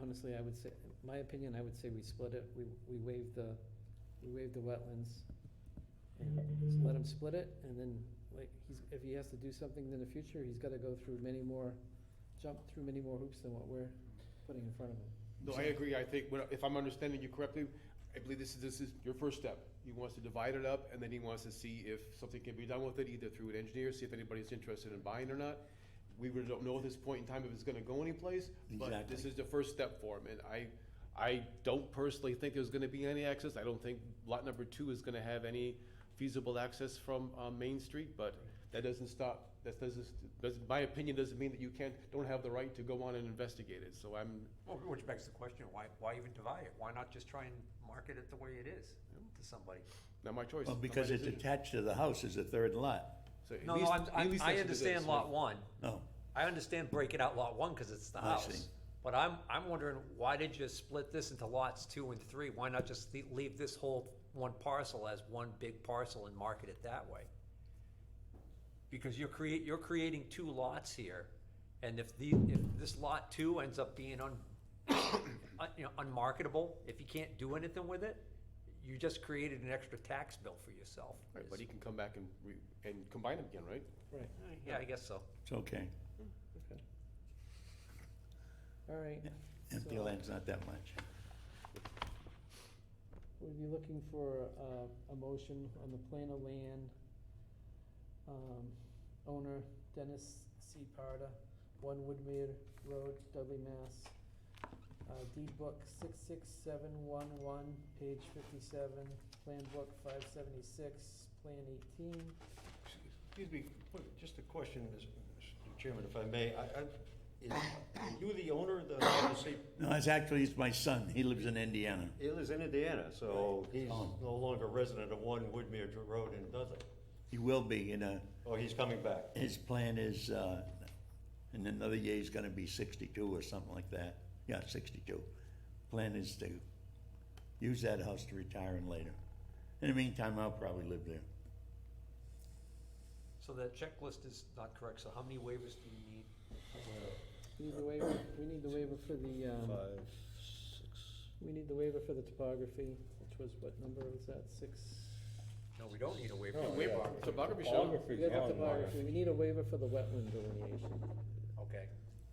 honestly, I would say, my opinion, I would say we split it, we, we waive the, we waive the wetlands. And just let him split it, and then, like, he's, if he has to do something in the future, he's gotta go through many more, jump through many more hoops than what we're putting in front of him. No, I agree. I think, what- if I'm understanding you correctly, I believe this is, this is your first step. He wants to divide it up, and then he wants to see if something can be done with it, either through an engineer, see if anybody's interested in buying or not. We really don't know at this point in time if it's gonna go anyplace, but this Exactly. is the first step for him, and I, I don't personally think there's gonna be any access. I don't think lot number two is gonna have any feasible access from, uh, Main Street, but that doesn't stop, that doesn't, doesn't, my opinion doesn't mean that you can't, don't have the right to go on and investigate it, so I'm, Well, Which begs the question, why, why even divide it? Why not just try and market it the way it is to somebody? Not my choice. Well, Not because my it's decision. attached to the house is a third lot. So at No, no, least- I'm, at I'm, least I listen to this. understand lot one. No, I understand breaking out lot one because it's the I house. see. But I'm, I'm wondering, why did you split this into lots two and three? Why not just le- leave this whole one parcel as one big parcel and market it that way? Because you're create, you're creating two lots here, and if the, if this lot two ends up being un, un- you know, unmarketable, if you can't do anything with it, you just created an extra tax bill for yourself. Right, but he can come back and, re- and combine them again, right? Right, Yeah, I guess so. it's okay. okay. All right, Empty So- land's not that much. we'll be looking for uh, a motion on the plan of land. Um, Owner Dennis C. Parda, One Woodmere Road, Dudley, Mass. Uh, Deed book six six seven one one, page fifty-seven, plan book five seventy-six, plan eighteen. Excuse me, what- just a question, Mr. Mr. Chairman, if I may. I, I, is, are you the owner of the, of the state, No, it's actually, it's my son. He lives in Indiana. he lives in Indiana, so he's Oh. no longer resident of one Woodmere Dr- Road in Dudley. He will be in a, Oh, he's coming back. his plan is, uh, in another year, he's gonna be sixty-two or something like that. Yeah, sixty-two. Plan is to use that house to retire in later. In the meantime, I'll probably live there. So that checklist is not correct, so how many waivers do you need? We need the waiver, we need the waiver for the, um, six. we need the waiver for the topography, which was what number was that, six? No, we don't need Oh, a waiver. Wait, topography show. We Topography got the on there. topography, we need a waiver for the wetland delineation. Okay.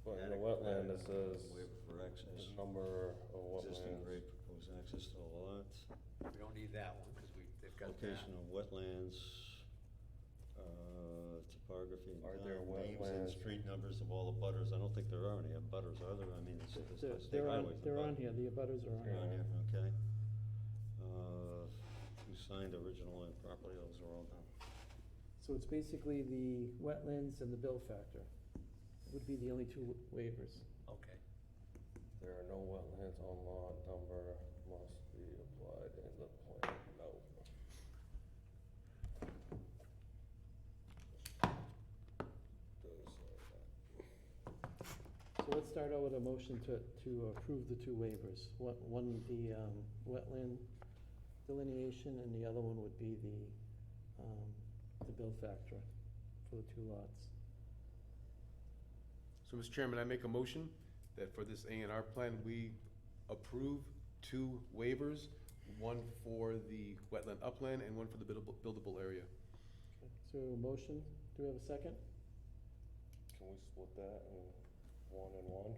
Well, in the wetland, it says Waiver for access, the number of existing wetlands. grade proposed access to the lot, We don't need that one, because we, they've got that. location of wetlands, uh, topography. and Are there town Names and wetlands? street numbers of all the butters. I don't think there are any butters, are there? I mean, it's, it's They're, the state they're on, highways. the they're butters. on here, the abutters are on Yeah. here. On here, okay. Uh, Who signed original and property, those are all done. So it's basically the wetlands and the bill factor would be the only two waivers. Okay. There are no wetlands on lot number must be applied in the plan, no. Doesn't say that. So let's start out with a motion to, to approve the two waivers. One, one the, um, wetland delineation and the other one would be the, um, the bill factor for the two lots. So, Mr. Chairman, I make a motion that for this A and R plan, we approve two waivers, one for the wetland upland and one for the buildable, buildable area. So a motion, do we have a second? Can we split that in one and one?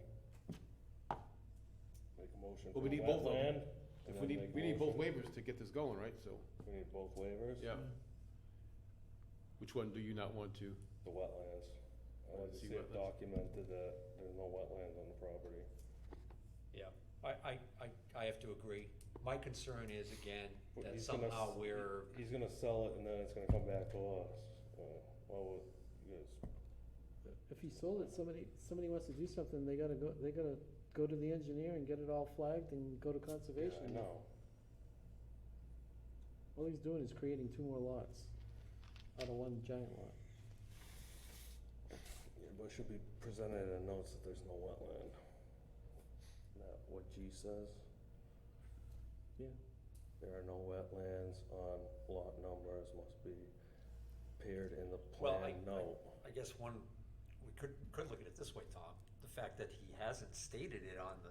Make a motion for Well, we need both of 'em. wetland. and If we then need, make a we need both motion- waivers to get this going, right? So, We need both waivers? yeah. Which one do you not want to? The wetlands. I Wanna want to see see it wetlands. documented that there's no wetlands on the property. Yeah, I, I, I, I have to agree. My concern is, again, But that he's gonna s- somehow we're, He's gonna sell it and then it's gonna come back to us. Uh, Well, we- you guys If he sold it, somebody, somebody wants to do something, they gotta go, they gotta go to the engineer and get it all flagged and go to conservation. Yeah, I know. All he's doing is creating two more lots out of one giant lot. Yeah, but it should be presented in notes that there's no wetland. Not what G says. Yeah. There are no wetlands on lot numbers must be appeared in the Well, I- plan note. I guess one, we could, could look at it this way, Tom. The fact that he hasn't stated it on the